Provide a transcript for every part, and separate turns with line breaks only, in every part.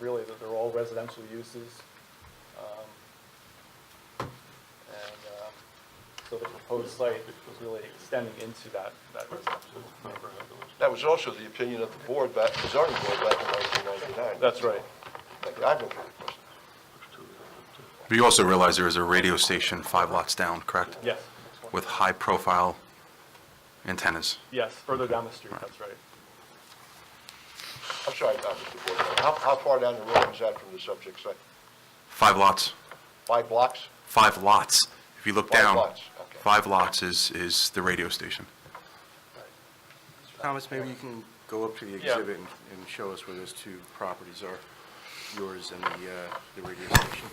really, that they're all residential uses. Um, And uh, so the proposed site was really extending into that, that residential neighborhood.
That was also the opinion of the board back, the zoning board back in 1999.
That's right.
Thank you. I have no further questions.
But you also realize there is a radio station five lots down, correct?
Yes,
With high-profile antennas.
yes, further down the street, that's right.
I'm sorry, uh, Mr. Board, member. how, how far down the road is that from the subject site?
Five lots,
Five blocks?
five lots. If you look
Five
down,
lots, okay.
five lots is, is the radio station.
Thomas, maybe you can go up to the exhibit and and show us where those two properties are, yours and the uh, the radio station.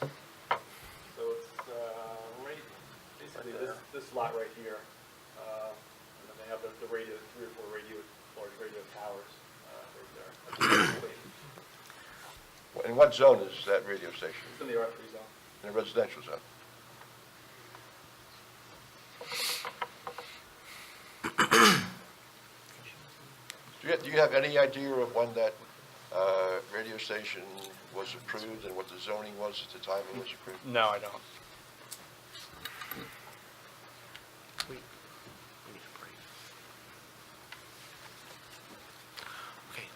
So it's uh, right, basically this, this lot right here. uh, And then they have the the radio, three or four radio, large radio towers uh, right there. It's
In what zone is that radio station?
in the R3 zone.
In a residential zone? Do you, do you have any idea of when that, uh, radio station was approved and what the zoning was at the time it was approved?
No, I don't.
Okay.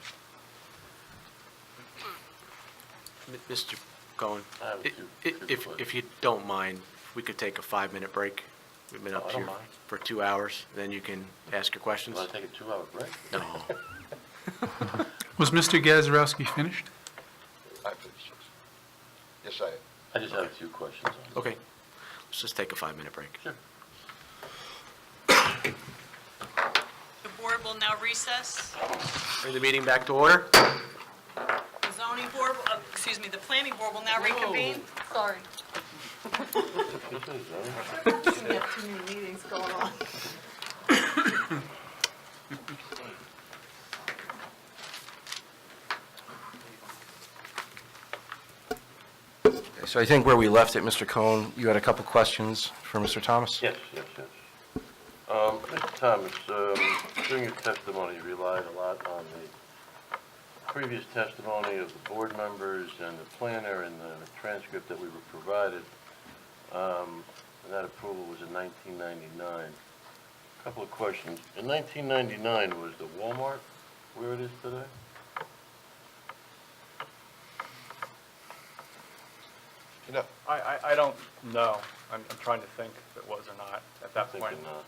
M- Mr. Cohen,
I have
i-
two-
i-
two
if,
questions.
if you don't mind, we could take a five-minute break. We've been
Oh,
up
I don't
here
mind.
for two hours, then you can ask your questions.
Want to take a two-hour break?
No.
Was Mr. Gazarovski finished?
I have fifty-six. Yes, I am.
I just have a few questions on it.
Okay, let's just take a five-minute break.
Sure.
The board will now recess.
Bring the meeting back to order.
The zoning board, will- uh, excuse me, the planning board will now reconvene.
Sorry.
Which is, uh,
We have too many meetings going on.
So I think where we left it, Mr. Cohen, you had a couple questions for Mr. Thomas?
Yes, yes, yes. Um, Mr. Thomas, um, during your testimony, you relied a lot on the previous testimony of the board members and the planner and the transcript that we were provided. Um, And that approval was in 1999. Couple of questions. In 1999, was the Walmart where it is today?
You know,
I, I, I don't know. I'm, I'm trying to think if it was or not at that point.
Thinking not,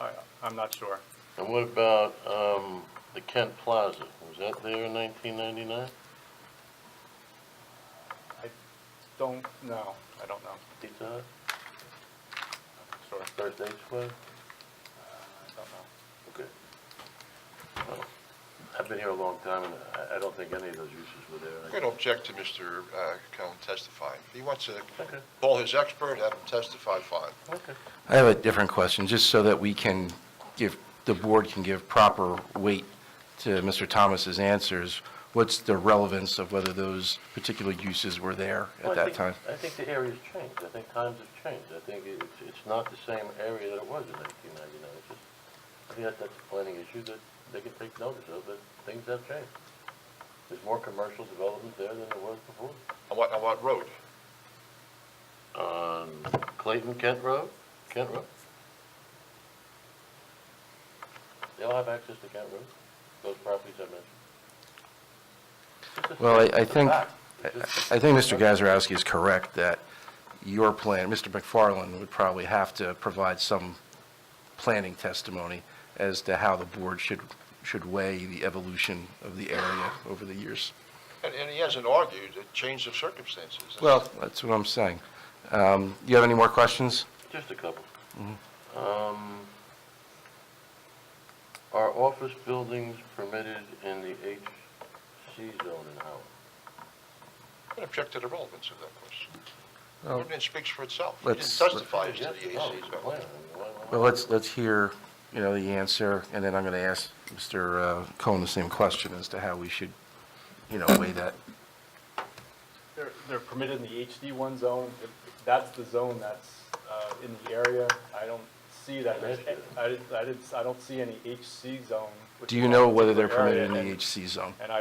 but...
I, I'm not sure.
And what about um, the Kent Plaza? Was that there in 1999?
I don't know. I don't know.
Pizza Hut,
Sure.
First Aid Squad?
Uh, I don't know.
Okay. Well, I've been here a long time, and I- I don't think any of those uses were
I'm
there.
going to object to Mr. uh, Cohen testifying. If he wants to
Okay.
call his expert, have him testify, fine.
Okay.
I have a different question, just so that we can give, the board can give proper weight to Mr. Thomas's answers. What's the relevance of whether those particular uses were there
Well,
at
I
that
think-
time?
I think the area's changed. I think times have changed. I think it- it's it's not the same area that it was in 1999. It's just, I think that- that's a planning issue that they can take notice of, that things have changed. There's more commercial development there than there was before.
On what, on what road?
on Um, Clayton Kent Road, Kent Road. They all have access to Kent Road, those properties I mentioned. It's just-
Well, I- I
it's a
think-
fact. It's just-
I think Mr. Gazarovski is correct that your plan, Mr. McFarland would probably have to provide some planning testimony as to how the board should, should weigh the evolution of the area over the years.
And, and he hasn't argued a change of circumstances.
Well, that's what I'm saying. Um, Do you have any more questions?
Just a couple. Um, Are office buildings permitted in the HC zone in Howard?
I'm going to object to the relevance of that question. The
Well,
Ordinance speaks for itself. He didn't
let's- let-
testify as to
Yes,
the AC
no, it's a
zone.
plan. I mean, why- why-
Well, let's, let's hear, you know, the answer, and then I'm going to ask Mr. uh, Cohen the same question as to how we should, you know, weigh that.
They're, they're permitted in the HD1 zone. If That's the zone that's uh, in the area. I don't see that. there's- I, didn't- I didn't, I don't see any HC zone. which
Do
is
you
on
know
a
whether they're
particular
permitted
area,
in the
and-
HC zone?
And I